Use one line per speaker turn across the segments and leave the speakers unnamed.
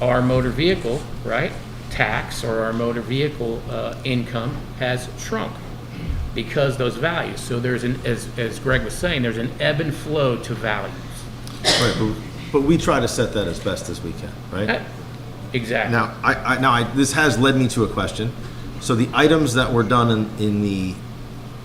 our motor vehicle, right, tax or our motor vehicle uh, income has shrunk because those values. So there's an, as, as Greg was saying, there's an ebb and flow to values.
Right, but- But we try to set that as best as we can, right?
That- Exactly.
Now, I, I, now, I, this has led me to a question. So the items that were done in, in the,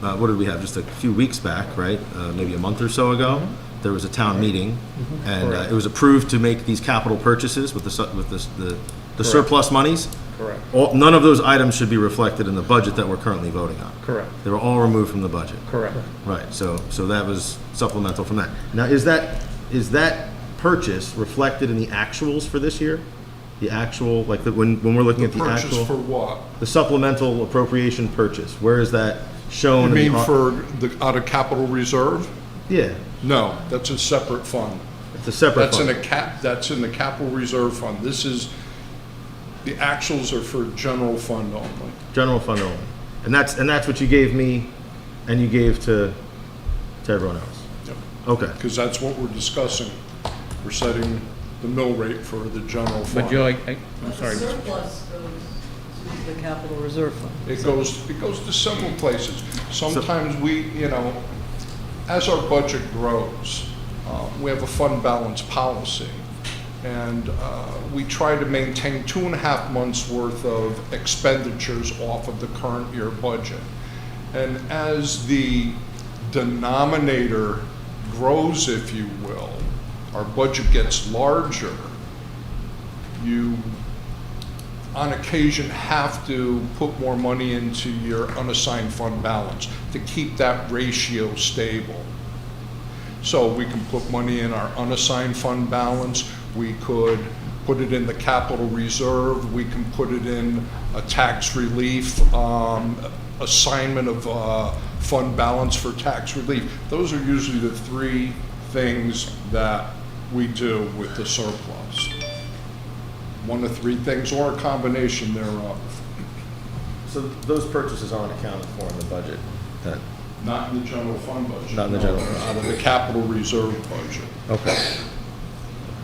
uh, what did we have, just a few weeks back, right? Uh, maybe a month or so ago,
Mm-hmm.
there was a town meeting, and uh, it was approved to make these capital purchases with the, su- with the s- the, the surplus monies.
Correct.
All, none of those items should be reflected in the budget that we're currently voting on.
Correct.
They were all removed from the budget.
Correct.
Right, so, so that was supplemental from that. Now, is that, is that purchase reflected in the actuals for this year? The actual, like, the- when, when we're looking at the
Purchase for
actual,
what?
the supplemental appropriation purchase, where is that shown?
You
in the
mean
au-
for the, out of capital reserve?
Yeah,
No, that's a separate fund.
it's a separate
That's in a
fund.
cap, that's in the capital reserve fund. This is, the actuals are for general fund only.
General fund only. And that's, and that's what you gave me and you gave to, to everyone else? Okay,
Because that's what we're discussing. We're setting the mill rate for the general
But
fund.
Joe, I, I- I'm
The
sorry.
surplus goes to the capital reserve fund.
It goes, it goes to several places. Sometimes we, you know, as our budget grows, uh, we have a fund balance policy. And uh, we try to maintain two and a half months' worth of expenditures off of the current year budget. And as the denominator grows, if you will, our budget gets larger, you on occasion have to put more money into your unassigned fund balance to keep that ratio stable. So we can put money in our unassigned fund balance, we could put it in the capital reserve, we can put it in a tax relief, um, assignment of, uh, fund balance for tax relief. Those are usually the three things that we do with the surplus one of three things or a combination thereof.
so those purchases aren't accounted for in the budget? That-
Not in the general fund budget.
Not in the
no,
general fund.
Out of the capital reserve budget.
Okay,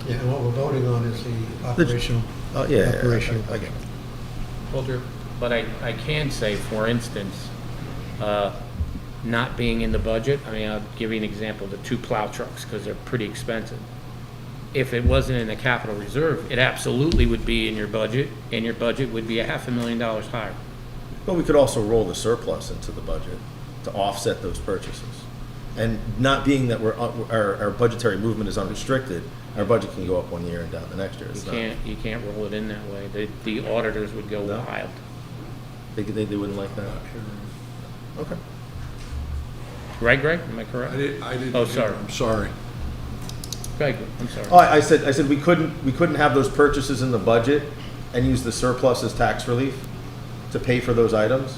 Yeah, and what we're voting on is the operational.
oh, yeah, yeah, yeah,
Operational.
I I get it.
Well, But I, I can say, for instance, uh, not being in the budget, I mean, I'll give you an example, the two plow trucks, because they're pretty expensive. If it wasn't in the capital reserve, it absolutely would be in your budget, and your budget would be a half a million dollars higher.
But we could also roll the surplus into the budget to offset those purchases. And not being that we're, uh, our, our budgetary movement is unrestricted, our budget can go up one year and down the next year.
You
It's not,
can't, you can't roll it in that way. The, the auditors would go
No.
wild.
they, they, they wouldn't like that. Okay.
Right, Greg? Am I correct?
I didn't, I didn't.
Oh, sorry.
I'm sorry.
Greg, I'm sorry.
Uh,
Oh, I I said, I said we couldn't, we couldn't have those purchases in the budget and use the surplus as tax relief to pay for those items?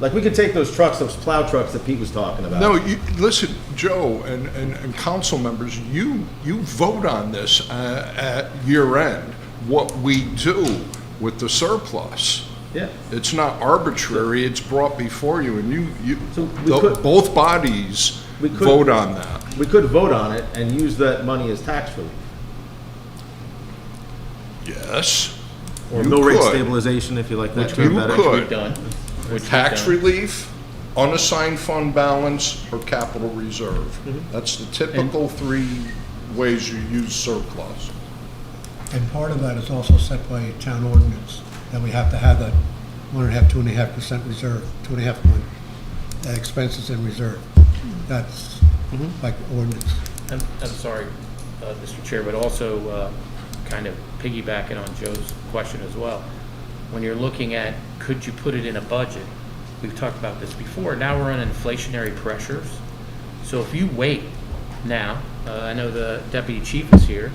Like, we could take those trucks, those plow trucks that Pete was talking about.
No, you, listen, Joe and, and, and council members, you, you vote on this uh, at year end, what we do with the surplus.
Yeah.
It's not arbitrary, it's brought before you and you, you,
So we
the-
could-
both bodies
We could-
vote on that.
We could vote on it and use that money as tax relief.
Yes.
Or
You
mill rate
could.
stabilization, if you like that
You
term better.
could.
We've done. Which we've
Tax
done.
relief, unassigned fund balance, or capital reserve. That's the typical three ways you use surplus.
And part of that is also set by town ordinance, that we have to have that one and a half, two and a half percent reserve, two and a half point uh, expenses in reserve.
Hmm.
That's
Mm-hmm.
like ordinance.
I'm, I'm sorry, uh, Mr. Chair, but also uh, kind of piggybacking on Joe's question as well. When you're looking at, could you put it in a budget? We've talked about this before. Now we're on inflationary pressures. So if you wait now, uh, I know the deputy chief is here.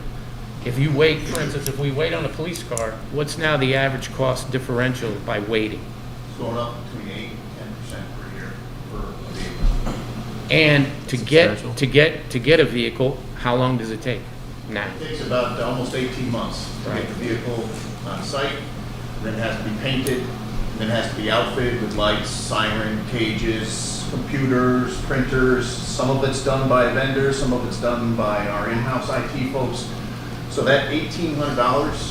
If you wait, for instance, if we wait on a police car, what's now the average cost differential by waiting?
It's going up between eight and ten percent per year for a vehicle.
And to
Substantial.
get, to get, to get a vehicle, how long does it take now?
It takes about almost eighteen months to get the vehicle on site, then it has to be painted, then it has to be outfitted with lights, siren, cages, computers, printers. Some of it's done by vendors, some of it's done by our in-house IT folks. So that eighteen hundred dollars